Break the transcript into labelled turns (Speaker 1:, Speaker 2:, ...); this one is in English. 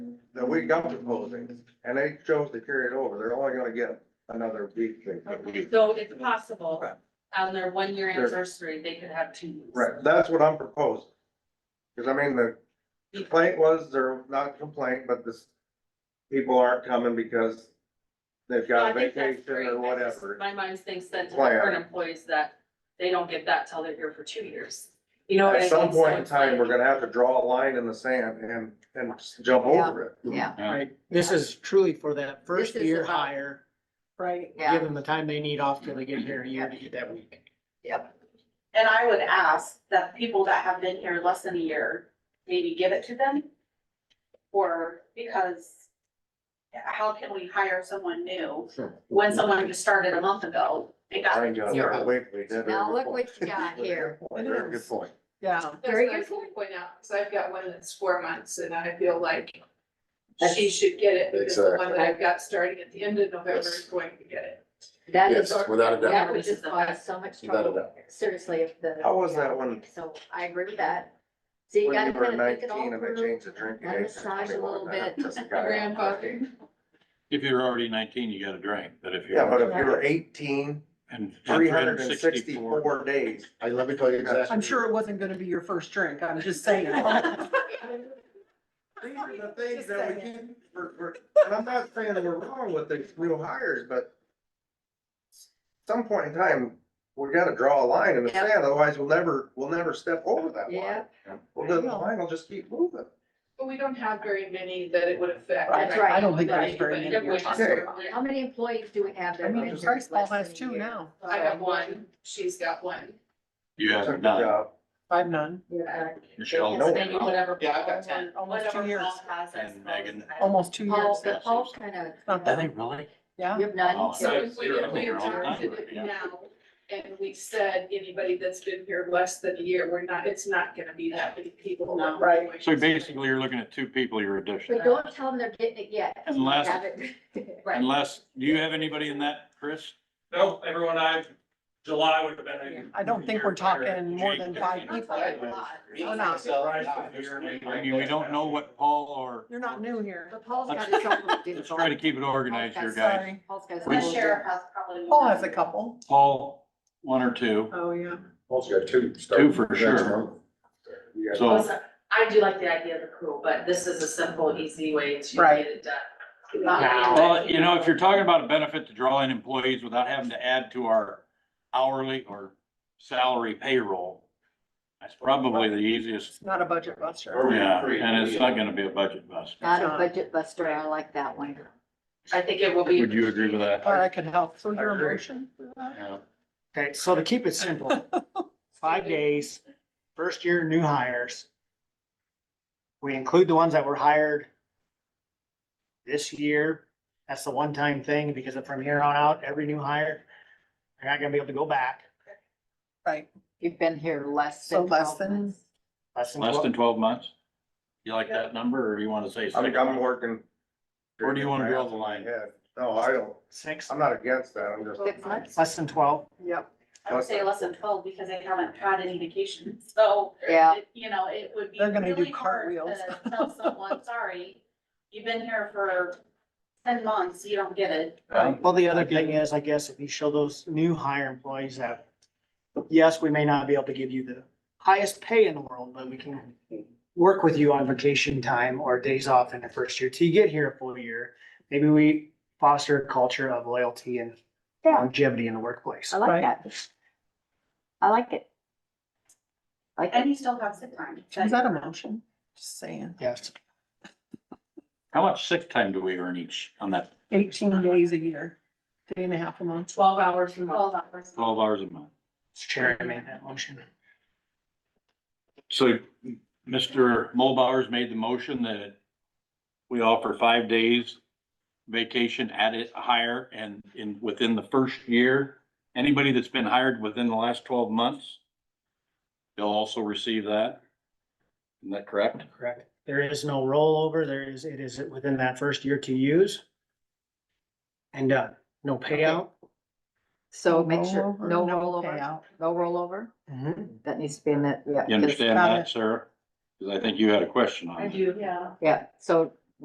Speaker 1: that we got proposing, and they chose to carry it over, they're only gonna get another week. they-
Speaker 2: Okay, so it's possible, on their one-year
Speaker 1: Sure.
Speaker 2: anniversary, they could have two weeks.
Speaker 1: Right, that's what I'm proposing. Cause I mean, the complaint was, they're not complaint, but this, people aren't coming because they've
Speaker 2: No, I
Speaker 1: got
Speaker 2: think that's
Speaker 1: vacation or
Speaker 2: great. I just-
Speaker 1: whatever.
Speaker 2: My mind thinks that to the
Speaker 1: Plan.
Speaker 2: current employees that they don't get that till they're here for two years. You know what I mean?
Speaker 1: At some point in
Speaker 2: So it's
Speaker 1: time, we're
Speaker 2: like-
Speaker 1: gonna have to draw a line in the sand and, and just jump over it.
Speaker 3: Yeah,
Speaker 4: Right, this is truly for that first
Speaker 3: is
Speaker 4: year
Speaker 3: about-
Speaker 4: hire,
Speaker 5: Right,
Speaker 3: yeah.
Speaker 4: give them the time they need off till they get here a year to get that week.
Speaker 5: and I would ask that people that have been here less than a year, maybe give it to them. Or because how can we hire someone new when someone just started a month ago and got
Speaker 1: I ain't gonna
Speaker 3: Yeah.
Speaker 1: wait till we did it.
Speaker 3: Now look what you got here.
Speaker 1: Very good point.
Speaker 3: Yeah.
Speaker 6: That's what I was gonna point out, because I've got one that's four months and I feel like she
Speaker 3: That's-
Speaker 6: should get it because the one
Speaker 7: Exactly.
Speaker 6: that I've got starting at the end of November
Speaker 7: Yes.
Speaker 6: is going to get it.
Speaker 3: That is,
Speaker 7: Yes, without a doubt.
Speaker 3: that would just cause so much
Speaker 7: Without a
Speaker 3: trouble, seriously, if the.
Speaker 1: How was that one?
Speaker 3: So I agree with that. So you
Speaker 1: When
Speaker 3: gotta
Speaker 1: you were
Speaker 3: kind of think it all
Speaker 1: nineteen and they
Speaker 3: through.
Speaker 1: changed the drinking
Speaker 3: Let
Speaker 1: age.
Speaker 3: it
Speaker 1: to
Speaker 3: massage a
Speaker 1: 21,
Speaker 3: little
Speaker 1: that
Speaker 3: bit.
Speaker 1: just got out.
Speaker 6: Grandfather.
Speaker 8: If you're already nineteen, you got a drink, but if you're.
Speaker 1: Yeah, but if you were eighteen,
Speaker 8: and- and
Speaker 1: three hundred and sixty-four days,
Speaker 7: I, let me tell you exactly.
Speaker 9: I'm sure it wasn't gonna be your first drink, I'm just saying.
Speaker 1: These are the things
Speaker 9: Just
Speaker 1: that we
Speaker 9: saying.
Speaker 1: keep, we're, we're, and I'm not saying that we're wrong with the new hires, but some point in time, we gotta draw a line in the
Speaker 3: Yep.
Speaker 1: sand, otherwise we'll never, we'll never step over that line.
Speaker 3: Yeah,
Speaker 1: Well, then the line will just keep moving.
Speaker 6: But we don't have very many that it would affect.
Speaker 3: That's right. I
Speaker 9: don't think there's very
Speaker 6: But
Speaker 9: many
Speaker 6: it would
Speaker 9: we're
Speaker 6: just-
Speaker 3: how many employees do we have that?
Speaker 9: I
Speaker 3: have
Speaker 9: mean,
Speaker 3: been here
Speaker 9: Christ Paul
Speaker 3: less than
Speaker 9: has
Speaker 3: a
Speaker 9: two
Speaker 3: year?
Speaker 9: now,
Speaker 6: I have one, she's got one.
Speaker 8: You
Speaker 1: Took the
Speaker 8: have none,
Speaker 1: job.
Speaker 9: I've none,
Speaker 3: Yeah.
Speaker 8: Michelle,
Speaker 1: No.
Speaker 2: Maybe whatever.
Speaker 6: Yeah, I've got
Speaker 2: Paul-
Speaker 9: Almost two
Speaker 2: whatever
Speaker 9: years.
Speaker 2: Paul has, I
Speaker 8: And
Speaker 2: suppose.
Speaker 8: Megan.
Speaker 2: I don't-
Speaker 9: almost two years.
Speaker 3: Paul's, Paul's kind of.
Speaker 9: Not
Speaker 8: Are
Speaker 9: that-
Speaker 8: they really?
Speaker 9: Yeah.
Speaker 3: You have none.
Speaker 8: Oh,
Speaker 6: So if we,
Speaker 8: Zero.
Speaker 6: if we
Speaker 8: Zero.
Speaker 6: adopted it
Speaker 8: Yeah.
Speaker 6: now and we said anybody that's been here less than a year, we're not, it's not gonna be that many people.
Speaker 2: No.
Speaker 6: Right.
Speaker 8: So basically, you're looking at two people you're addition,
Speaker 3: But don't tell them they're getting it yet.
Speaker 8: Unless-
Speaker 3: Have it.
Speaker 2: Right.
Speaker 8: unless, do you have anybody in that, Chris?
Speaker 10: No, everyone I've, July would have been. a
Speaker 9: I don't think we're
Speaker 10: year higher.
Speaker 9: talking more
Speaker 8: Jake,
Speaker 9: than five
Speaker 8: Jake.
Speaker 9: people. We're not.
Speaker 8: I mean, we don't know what Paul or.
Speaker 9: You're not new here.
Speaker 3: But Paul's got his own little
Speaker 8: Let's try to keep it organized here, guys.
Speaker 3: Paul's got his own
Speaker 8: We-
Speaker 5: The
Speaker 3: little
Speaker 5: sheriff has probably.
Speaker 9: Paul has a couple.
Speaker 8: Paul, one or two,
Speaker 6: Oh, yeah.
Speaker 7: Also got two.
Speaker 8: Two for sure.
Speaker 9: oh.
Speaker 8: so.
Speaker 2: Listen, I do like the idea of the crew, but this is a simple, easy way to
Speaker 9: Right.
Speaker 2: get it done.
Speaker 6: Now.
Speaker 8: Well, you know, if you're talking about a benefit to draw in employees without having to add to our hourly or salary payroll, that's probably the easiest,
Speaker 9: It's not a budget buster.
Speaker 10: Or we
Speaker 8: yeah,
Speaker 10: agree.
Speaker 8: and it's not gonna be a budget bust.
Speaker 3: Not a budget buster, I like that one.
Speaker 2: I think it will be.
Speaker 8: Would you agree with that?
Speaker 9: Or I could help, so your
Speaker 8: I agree.
Speaker 9: emotion. for that?
Speaker 8: Yeah.
Speaker 4: Okay, so to keep it simple, five days, first year new hires. We include the ones that were hired this year. That's the one-time thing because from here on out, every new hire, they're not gonna be able to go back
Speaker 9: Right,
Speaker 3: You've been here less
Speaker 9: so
Speaker 3: than
Speaker 9: less
Speaker 3: 12
Speaker 9: than,
Speaker 3: months.
Speaker 4: less than
Speaker 8: Less
Speaker 4: twelve.
Speaker 8: than twelve months? You like that number or you wanna say
Speaker 1: I'm,
Speaker 8: six?
Speaker 1: I'm working.
Speaker 8: Where do you wanna draw the line?
Speaker 1: Yeah, no, I don't,
Speaker 4: Six,
Speaker 1: I'm not against that, I'm just.
Speaker 3: Six months,
Speaker 4: less than twelve.
Speaker 9: yep.
Speaker 5: I would say less than twelve because they haven't had any vacation, so.
Speaker 3: yeah.
Speaker 5: it- You know, it would be.
Speaker 9: They're gonna do
Speaker 5: really hard
Speaker 9: cartwheels.
Speaker 5: to Tell someone, sorry, you've been here for ten months, you don't get it.
Speaker 4: Well, the other thing is, I guess, if you show those new hire employees that, yes, we may not be able to give you the highest pay in the world, but we can work with you on vacation time or days off in the first year till you get here a full year. Maybe we foster a culture of loyalty and
Speaker 3: Yeah.
Speaker 4: longevity in the workplace.
Speaker 3: I
Speaker 9: Right.
Speaker 3: like that. I like it. I Like,
Speaker 5: And
Speaker 3: it.
Speaker 5: you still have sick time.
Speaker 9: Is that a motion? Just saying.
Speaker 4: Yes,
Speaker 8: How much sick time do we earn each on that
Speaker 9: Eighteen days a year, day and a half a month.
Speaker 2: Twelve hours a month.
Speaker 5: Twelve hours.
Speaker 8: twelve hours a month?
Speaker 4: Mr. Chair, I made that motion.
Speaker 8: So Mr. Mulbauer's made the motion that we offer five days vacation at it higher and in, within the first year. Anybody that's been hired within the last twelve months, they'll also receive that. Isn't that correct?
Speaker 4: Correct. There is no rollover. There is, it is within that first year to use. And, uh, no payout.
Speaker 3: so make sure,
Speaker 9: Rollover,
Speaker 3: no rollover,
Speaker 9: payout.
Speaker 3: no rollover.
Speaker 4: Mm-hmm.
Speaker 3: That needs to be in that, yeah.
Speaker 8: You
Speaker 3: because-
Speaker 8: understand
Speaker 9: Got
Speaker 8: that,
Speaker 9: it.
Speaker 8: Sarah? Because I think you had a question on
Speaker 2: I
Speaker 8: it.
Speaker 2: do.
Speaker 5: Yeah.
Speaker 3: Yeah, so